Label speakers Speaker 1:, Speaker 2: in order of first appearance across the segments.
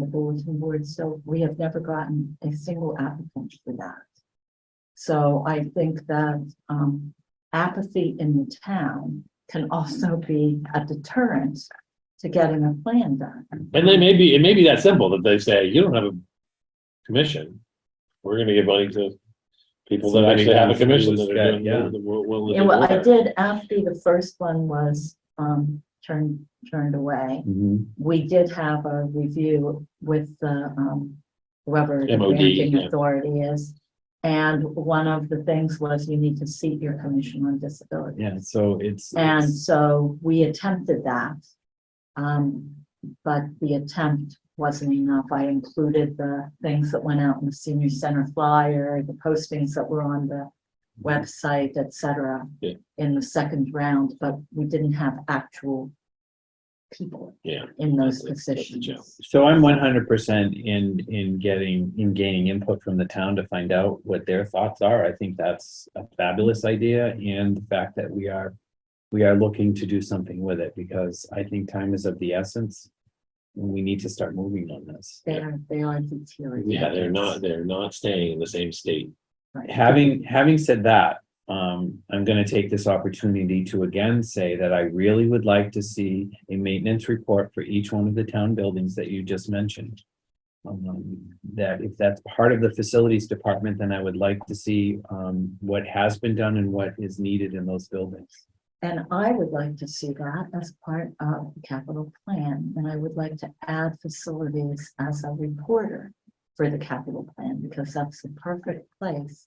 Speaker 1: the boards and boards, so we have never gotten a single applicant for that. So I think that um apathy in the town can also be a deterrent to getting a plan done.
Speaker 2: And they may be, it may be that simple that they say, you don't have a commission. We're gonna give money to people that
Speaker 3: Somebody
Speaker 2: actually have a
Speaker 3: who's- who
Speaker 2: commission
Speaker 3: was
Speaker 2: that
Speaker 3: got-
Speaker 2: are doing,
Speaker 3: yeah.
Speaker 2: that were
Speaker 1: Yeah,
Speaker 2: willing
Speaker 1: well, I
Speaker 2: to do it.
Speaker 1: did after the first one was um turned turned away. we did have a review with the, um, whoever the
Speaker 2: MOD,
Speaker 1: managing
Speaker 2: yeah.
Speaker 1: authority is. And one of the things was you need to seat your commission on disability.
Speaker 3: Yeah, so it's.
Speaker 1: And
Speaker 3: it's-
Speaker 1: so we attempted that. Um, but the attempt wasn't enough. I included the things that went out in the senior center flyer, the postings that were on the website, et cetera,
Speaker 2: Yeah.
Speaker 1: in the second round, but we didn't have actual people
Speaker 2: Yeah.
Speaker 1: in those
Speaker 2: That's- that's the challenge.
Speaker 1: positions.
Speaker 3: So I'm one hundred percent in, in getting, in gaining input from the town to find out what their thoughts are. I think that's a fabulous idea and the fact that we are. We are looking to do something with it because I think time is of the essence. and We need to start moving on this.
Speaker 1: They are, they are deteriorating.
Speaker 2: Yeah, they're not, they're not staying in the same state.
Speaker 1: Right.
Speaker 3: Having, having said that, um, I'm gonna take this opportunity to again say that I really would like to see a maintenance report for each one of the town buildings that you just mentioned. Um, that if that's part of the facilities department, then I would like to see, um, what has been done and what is needed in those buildings.
Speaker 1: And I would like to see that as part of the capital plan, and I would like to add facilities as a reporter for the capital plan, because that's the perfect place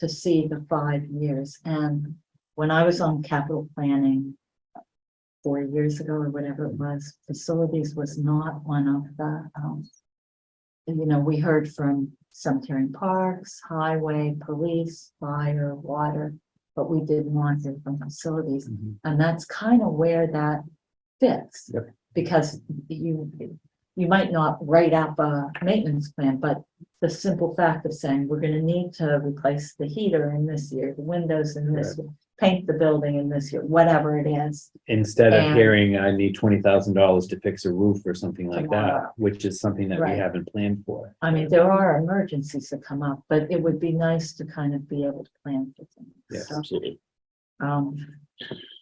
Speaker 1: to see the five years. And when I was on capital planning four years ago or whatever it was, facilities was not one of the, um, you know, we heard from cemetery and parks, highway, police, fire, water, but we did want it from facilities. And that's kind of where that fits.
Speaker 3: Yep.
Speaker 1: Because you, you might not write up a maintenance plan, but the simple fact of saying, we're gonna need to replace the heater in this year, the windows in this, year, paint the building in this year, whatever it is.
Speaker 3: Instead of
Speaker 1: And-
Speaker 3: hearing, I need twenty thousand dollars to fix a roof or something like
Speaker 1: Tomorrow.
Speaker 3: that, which is something that we
Speaker 1: Right.
Speaker 3: haven't planned for.
Speaker 1: I mean, there are emergencies that come up, but it would be nice to kind of be able to plan for things.
Speaker 3: Yes.
Speaker 1: So,
Speaker 2: Absolutely.
Speaker 1: Um,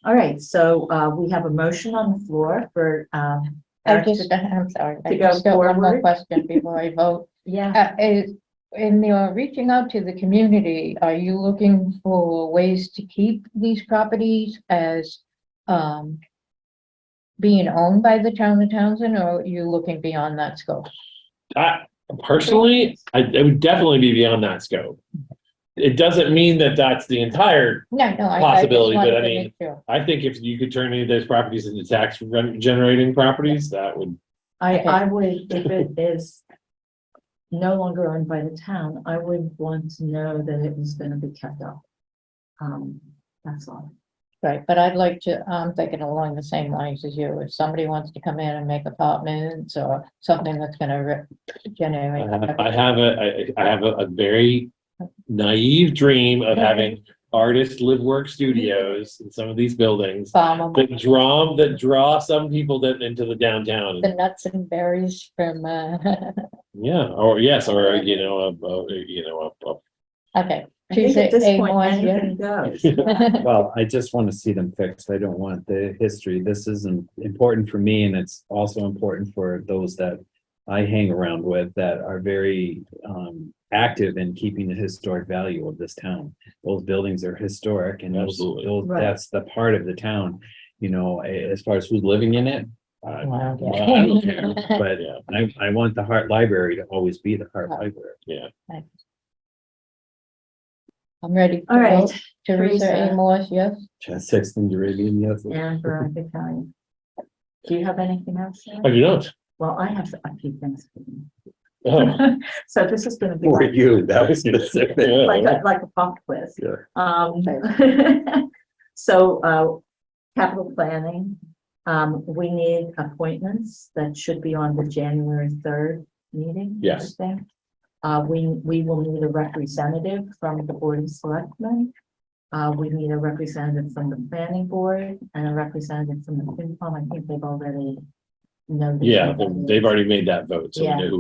Speaker 1: all right, so, uh, we have a motion on the floor for, um.
Speaker 4: I
Speaker 1: Eric to-
Speaker 4: just, I'm sorry,
Speaker 1: to
Speaker 4: I
Speaker 1: go
Speaker 4: just got one
Speaker 1: forward.
Speaker 4: more question before I vote.
Speaker 1: Yeah.
Speaker 4: Uh, is, in your reaching out to the community, are you looking for ways to keep these properties as, um, being owned by the town of Townsend, or are you looking beyond that scope?
Speaker 2: I personally, I, it would definitely be beyond that scope. It doesn't mean that that's the entire
Speaker 4: No, no, I. I just
Speaker 2: Possibility, but
Speaker 4: wanted
Speaker 2: I
Speaker 4: to
Speaker 2: mean-
Speaker 4: make sure.
Speaker 2: I think if you could turn any of those properties into tax re- generating properties, that would,
Speaker 1: I,
Speaker 4: Okay.
Speaker 1: I would, if it is no longer owned by the town, I would want to know that it was gonna be kept up. Um, that's all.
Speaker 4: Right, but I'd like to, I'm thinking along the same lines as you, if somebody wants to come in and make apartments or something that's gonna re-
Speaker 2: I
Speaker 4: generate.
Speaker 2: have, Uh, I have a, I, I have a, a very naive dream of having artists live work studios in some of these buildings
Speaker 4: Farm them.
Speaker 2: that draw, that draw some people that into the downtown.
Speaker 4: the nuts and berries from, uh,
Speaker 2: Yeah, or yes, or, you know, a, a, you know, a, a-
Speaker 4: okay.
Speaker 1: I think at
Speaker 4: Tuesday,
Speaker 1: this point,
Speaker 4: Amos, yeah.
Speaker 1: anything goes.
Speaker 3: Well, I just want to see them fixed. I don't want the history. This is im- important for me and it's also important for those that I hang around with that are very um active in keeping the historic value of this town. Those buildings are historic and those,
Speaker 2: Absolutely.
Speaker 3: those-
Speaker 1: Right.
Speaker 3: that's the part of the town, you know, a- as far as who's living in it. I-
Speaker 4: Wow.
Speaker 3: I don't care, But
Speaker 2: yeah,
Speaker 3: I I want the Hart Library to always be the Hart Library.
Speaker 2: yeah.
Speaker 4: I'm ready. to
Speaker 1: All right,
Speaker 4: vote. Teresa
Speaker 1: Teresa.
Speaker 4: Amos, yes?
Speaker 3: Chad Sexton, Arabian, yes.
Speaker 1: And Veronica Kelly. Do you have anything else? Sarah?
Speaker 2: I do not.
Speaker 1: Well, I have a few things. for you.
Speaker 2: Oh,
Speaker 1: So this is gonna be
Speaker 3: For
Speaker 1: like,
Speaker 3: you, that was specific.
Speaker 1: like,
Speaker 2: yeah.
Speaker 1: a- like a pop quiz.
Speaker 3: Yeah.
Speaker 1: Um, so, uh, capital planning, um, we need appointments that should be on the January third meeting. I
Speaker 2: Yes.
Speaker 1: think. Uh, we, we will need a representative from the Board of Selectmen. Uh, we need a representative from the Planning Board and a representative from the FinCom. I think they've already
Speaker 2: know. the
Speaker 1: Yeah,
Speaker 2: company.
Speaker 1: they've already made that vote, so we
Speaker 2: Yeah.
Speaker 1: know who